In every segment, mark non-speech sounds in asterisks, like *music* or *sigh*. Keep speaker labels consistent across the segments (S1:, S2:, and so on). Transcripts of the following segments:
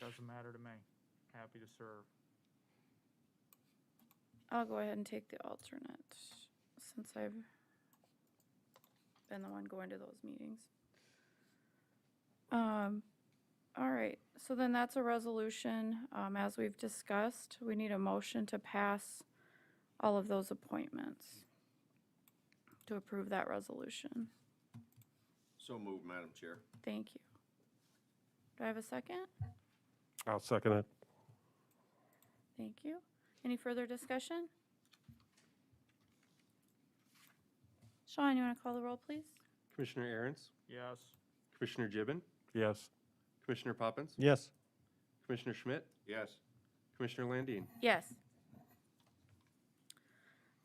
S1: Doesn't matter to me. Happy to serve.
S2: I'll go ahead and take the alternate since I've been the one going to those meetings. Um, all right, so then that's a resolution. Um, as we've discussed, we need a motion to pass all of those appointments to approve that resolution.
S3: So moved, Madam Chair.
S2: Thank you. Do I have a second?
S4: I'll second it.
S2: Thank you. Any further discussion? Sean, you want to call the roll, please?
S5: Commissioner Aaron's,
S1: Yes.
S5: Commissioner Gibbon,
S4: Yes.
S5: Commissioner Poppins,
S4: Yes.
S5: Commissioner Schmidt,
S3: Yes.
S5: Commissioner Landine.
S2: Yes.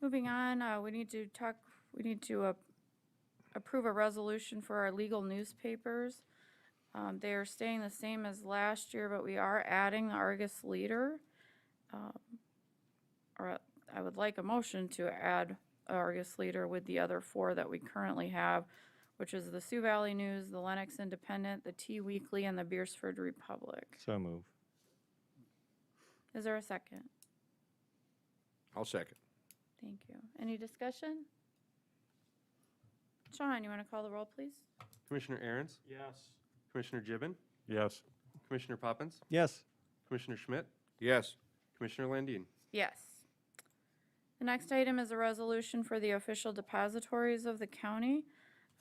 S2: Moving on, uh, we need to talk, we need to uh, approve a resolution for our legal newspapers. Um, They are staying the same as last year, but we are adding the Argus Leader. Um, Or I would like a motion to add Argus Leader with the other four that we currently have, which is the Sioux Valley News, the Lennox Independent, the T Weekly, and the Beersford Republic.
S4: So move.
S2: Is there a second?
S3: I'll second.
S2: Thank you. Any discussion? Sean, you want to call the roll, please?
S5: Commissioner Aaron's,
S1: Yes.
S5: Commissioner Gibbon,
S4: Yes.
S5: Commissioner Poppins,
S4: Yes.
S5: Commissioner Schmidt,
S3: Yes.
S5: Commissioner Landine.
S2: Yes. The next item is a resolution for the official depositories of the county.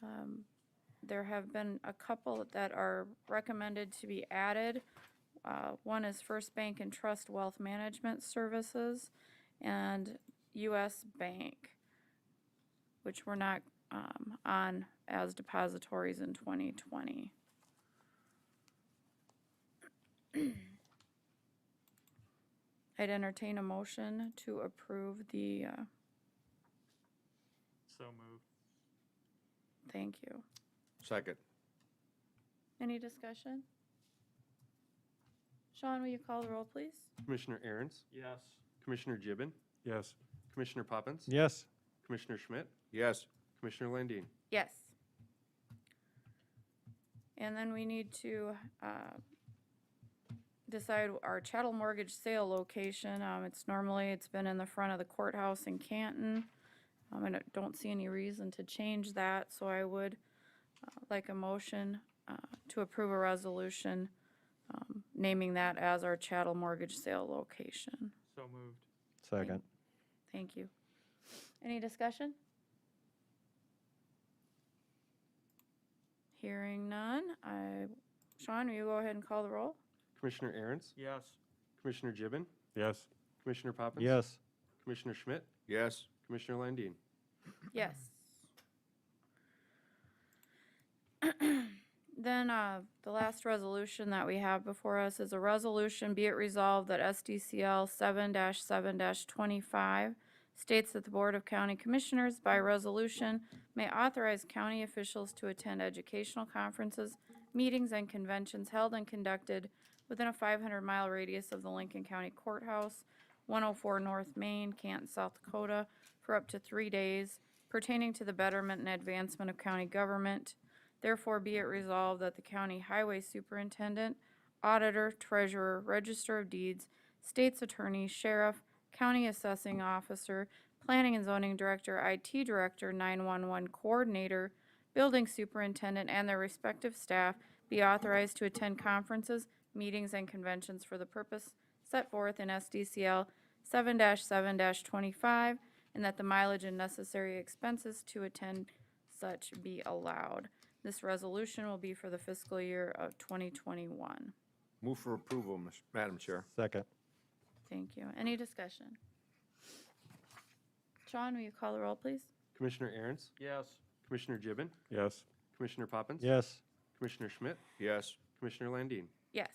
S2: Um, There have been a couple that are recommended to be added. Uh, One is First Bank and Trust Wealth Management Services and US Bank, which were not um, on as depositories in 2020. I'd entertain a motion to approve the, uh,
S1: So moved.
S2: thank you.
S3: Second.
S2: Any discussion? Sean, will you call the roll, please?
S5: Commissioner Aaron's,
S1: Yes.
S5: Commissioner Gibbon,
S4: Yes.
S5: Commissioner Poppins,
S4: Yes.
S5: Commissioner Schmidt,
S3: Yes.
S5: Commissioner Landine.
S2: Yes. And then we need to uh, decide our chattel mortgage sale location. Um, It's normally, it's been in the front of the courthouse in Canton. Um, And I don't see any reason to change that, so I would uh, like a motion uh, to approve a resolution um, naming that as our chattel mortgage sale location.
S1: So moved.
S4: Second.
S2: Thank you. Any discussion? Hearing none, I, Sean, will you go ahead and call the roll?
S5: Commissioner Aaron's,
S1: Yes.
S5: Commissioner Gibbon,
S4: Yes.
S5: Commissioner Poppins.
S4: Yes.
S5: Commissioner Schmidt,
S3: Yes.
S5: Commissioner Landine.
S2: Yes. *clears throat* Then, uh, the last resolution that we have before us is a resolution, be it resolved that SDCL seven seven twenty-five states that the Board of County Commissioners by resolution may authorize county officials to attend educational conferences, meetings, and conventions held and conducted within a five hundred mile radius of the Lincoln County Courthouse, one oh four North Main, Canton, South Dakota, for up to three days pertaining to the betterment and advancement of county government. Therefore be it resolved that the county highway superintendent, auditor, treasurer, register of deeds, state's attorney, sheriff, county assessing officer, planning and zoning director, IT director, nine-one-one coordinator, building superintendent, and their respective staff be authorized to attend conferences, meetings, and conventions for the purpose set forth in SDCL seven seven twenty-five, and that the mileage and necessary expenses to attend such be allowed. This resolution will be for the fiscal year of twenty twenty-one.
S3: Move for approval, Ms. Madam Chair.
S4: Second.
S2: Thank you. Any discussion? Sean, will you call the roll, please?
S5: Commissioner Aaron's,
S1: Yes.
S5: Commissioner Gibbon,
S4: Yes.
S5: Commissioner Poppins.
S4: Yes.
S5: Commissioner Schmidt,
S3: Yes.
S5: Commissioner Landine.
S2: Yes.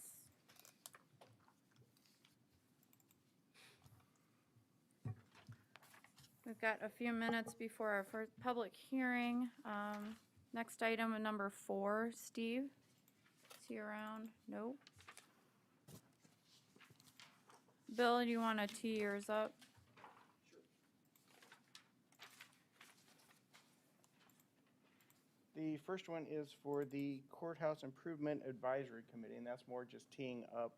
S2: We've got a few minutes before our first public hearing. Um, Next item, number four, Steve. Is he around? Nope. Bill, you want to tee yours up?
S6: The first one is for the Courthouse Improvement Advisory Committee, and that's more just teeing up